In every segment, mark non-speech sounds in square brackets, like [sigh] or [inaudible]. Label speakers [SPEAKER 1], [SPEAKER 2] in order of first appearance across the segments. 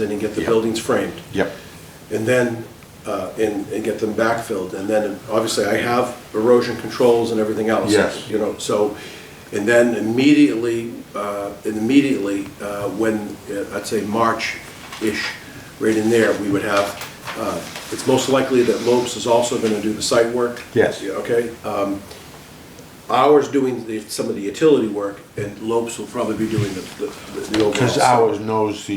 [SPEAKER 1] in and get the
[SPEAKER 2] Yeah.
[SPEAKER 1] buildings framed.
[SPEAKER 2] Yep,
[SPEAKER 1] and then, uh, and, and get them backfilled. And then, obviously, I have erosion controls and everything else.
[SPEAKER 2] Yes.
[SPEAKER 1] You know, so, and then immediately, uh, and immediately, uh, when, uh, I'd say March-ish, right in there, we would have, uh, it's most likely that Lopes is also gonna do the site work.
[SPEAKER 2] Yes.
[SPEAKER 1] Yeah, Okay? Um, Ours doing the, some of the utility work, and Lopes will probably be doing the, the- the overall.
[SPEAKER 2] because ours knows the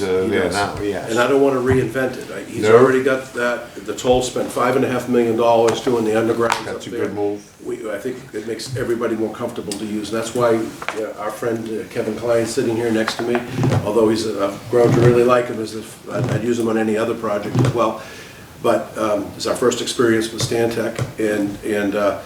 [SPEAKER 1] Yes,
[SPEAKER 2] that are
[SPEAKER 1] he
[SPEAKER 2] there
[SPEAKER 1] does.
[SPEAKER 2] uh, now,
[SPEAKER 1] And I
[SPEAKER 2] yes.
[SPEAKER 1] don't want to reinvent it. I- He's
[SPEAKER 2] No.
[SPEAKER 1] already got that, the toll spent five and a half million dollars doing the underground up there.
[SPEAKER 2] That's a good move.
[SPEAKER 1] We, I think it makes everybody more comfortable to use, and that's why yeah, our friend uh, Kevin Klein is sitting here next to me, although he's, uh, I've grown to really like him, as if, I'd I'd use him on any other project as well. But um, it's our first experience with Stantec, and, and uh,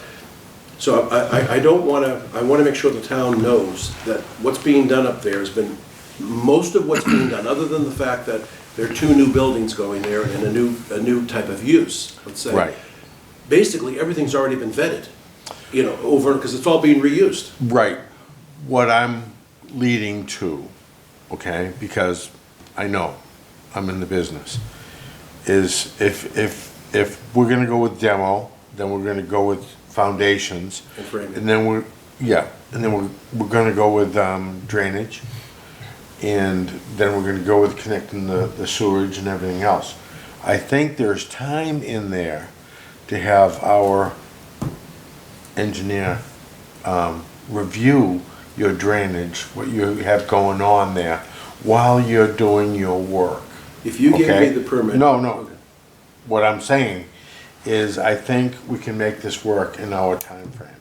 [SPEAKER 1] so I, I, I don't want to, I want to make sure the town knows that what's being done up there has been, most of what's being done, other than the fact that there are two new buildings going there and a new, a new type of use, let's say.
[SPEAKER 2] Right.
[SPEAKER 1] Basically, everything's already been vetted, you know, over, because it's all being reused.
[SPEAKER 2] Right, what I'm leading to, okay, because I know, I'm in the business, is if, if, if we're gonna go with demo, then we're gonna go with foundations.
[SPEAKER 1] And framing.
[SPEAKER 2] And then we're, yeah, and then we're, we're gonna go with um, drainage. and then we're gonna go with connecting the, the sewerage and everything else. I think there's time in there to have our engineer, um, review your drainage, what you have going on there, while you're doing your work.
[SPEAKER 1] If you gave me
[SPEAKER 2] okay?
[SPEAKER 1] the permit.
[SPEAKER 2] No, no, what I'm saying is I think we can make this work in our timeframe.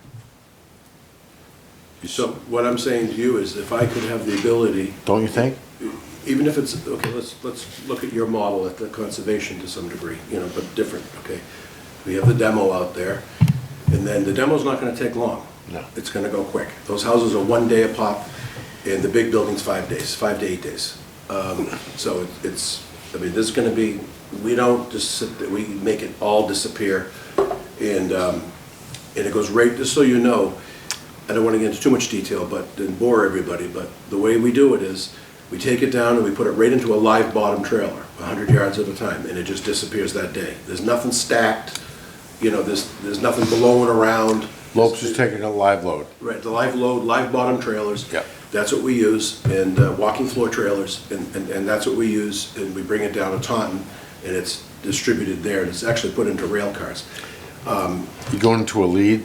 [SPEAKER 1] So what I'm saying to you is if I could have the ability,
[SPEAKER 2] Don't you think?
[SPEAKER 1] even if it's, okay, let's, let's look at your model at the conservation to some degree, you know, but different, okay? We have the demo out there, and then the demo's not gonna take long.
[SPEAKER 2] No.
[SPEAKER 1] It's gonna go quick. Those houses are one day a pop, and the big building's five days, five to eight days. Um, So it- it's, I mean, this is gonna be, we don't just sit, there, we make it all disappear, and, um, and it goes right, just so you know, I don't want to get into too much detail, but, and bore everybody, but the way we do it is, we take it down and we put it right into a live bottom trailer, hundred yards at a time, and it just disappears that day. There's nothing stacked, you know, there's, there's nothing blowing around.
[SPEAKER 2] Lopes is taking a live load.
[SPEAKER 1] Right, the live load, live bottom trailers.
[SPEAKER 2] Yep.
[SPEAKER 1] That's what we use, and uh, walking floor trailers, and, and and that's what we use, and we bring it down to Taunton, and it's distributed there, and it's actually put into rail cars.
[SPEAKER 2] You going to a lead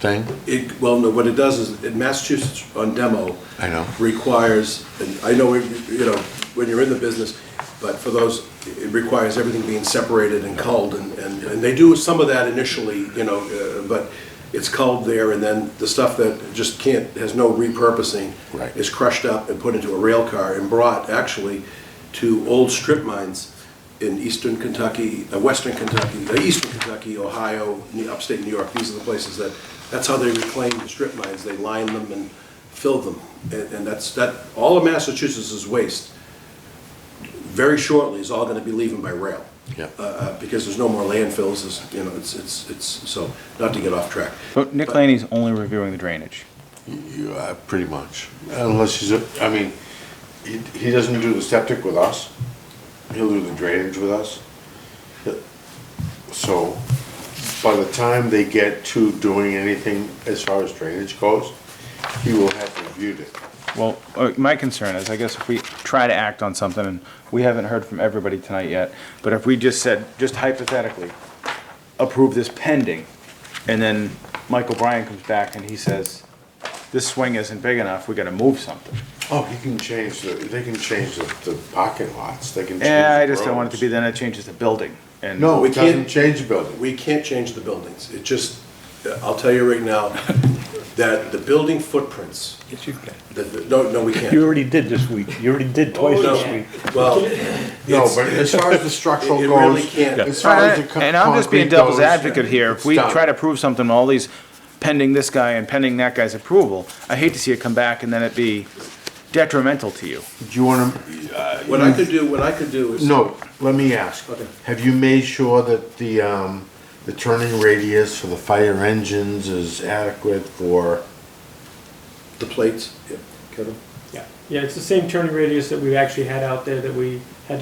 [SPEAKER 2] thing?
[SPEAKER 1] It, well, no, what it does is, in Massachusetts on demo.
[SPEAKER 2] I know.
[SPEAKER 1] Requires, and I know, when- you know, when you're in the business, but for those, it requires everything being separated and culled, and, and and they do some of that initially, you know, uh, but it's culled there, and then the stuff that just can't, has no repurposing.
[SPEAKER 2] Right.
[SPEAKER 1] Is crushed up and put into a rail car and brought actually to old strip mines in eastern Kentucky, uh, western Kentucky, uh, eastern Kentucky, Ohio, New- upstate New York. These are the places that, that's how they reclaim the strip mines. They line them and fill them. And and that's, that, all of Massachusetts' waste, very shortly, is all going to be leaving by rail.
[SPEAKER 2] Yeah.
[SPEAKER 1] Uh, uh, Because there's no more landfills, there's, you know, it's, it's, it's, so, not to get off track.
[SPEAKER 3] But Nick Laney's only reviewing the drainage.
[SPEAKER 2] You, uh, pretty much, unless he's, a- I mean, he, he doesn't do the septic with us, he'll do the drainage with us. So, by the time they get to doing anything as far as drainage goes, he will have reviewed it.
[SPEAKER 3] Well, uh, my concern is, I guess if we try to act on something, and we haven't heard from everybody tonight yet, but if we just said, just hypothetically, approve this pending, and then Michael Bryan comes back and he says, this swing isn't big enough, we gotta move something.
[SPEAKER 2] Oh, he can change the, they can change the, the parking lots, they can change.
[SPEAKER 3] Yeah, I
[SPEAKER 2] the
[SPEAKER 3] just don't want it to be,
[SPEAKER 2] roads.
[SPEAKER 3] then it changes the building, and.
[SPEAKER 2] No,
[SPEAKER 1] We
[SPEAKER 2] it doesn't
[SPEAKER 1] can't-
[SPEAKER 2] change the building,
[SPEAKER 1] We can't change the buildings. It just, I'll tell you right now, that the building footprints,
[SPEAKER 4] Yes, you can.
[SPEAKER 1] the- the- no, no, we can't.
[SPEAKER 4] You already did this week. You already did twice
[SPEAKER 1] No,
[SPEAKER 4] this week.
[SPEAKER 1] Well,
[SPEAKER 2] no,
[SPEAKER 1] it's-
[SPEAKER 2] but as far as the structural
[SPEAKER 1] [laughs] It- it
[SPEAKER 2] goes.
[SPEAKER 1] really can't.
[SPEAKER 2] As far as the co-
[SPEAKER 3] And I'm just being
[SPEAKER 2] concrete
[SPEAKER 3] devil's
[SPEAKER 2] goes,
[SPEAKER 3] advocate here, if
[SPEAKER 2] it's
[SPEAKER 3] we
[SPEAKER 2] done.
[SPEAKER 3] try to prove something, all these pending this guy and pending that guy's approval, I hate to see it come back and then it be detrimental to you.
[SPEAKER 2] Do you wanna,
[SPEAKER 1] what I could do, what I could do is.
[SPEAKER 2] No, let me ask.
[SPEAKER 1] Okay.
[SPEAKER 2] Have you made sure that the, um, the turning radius for the fire engines is adequate for,
[SPEAKER 1] The plates, yeah, Kevin? Yeah.
[SPEAKER 5] Yeah, it's the same turning radius that we've actually had out there that we had to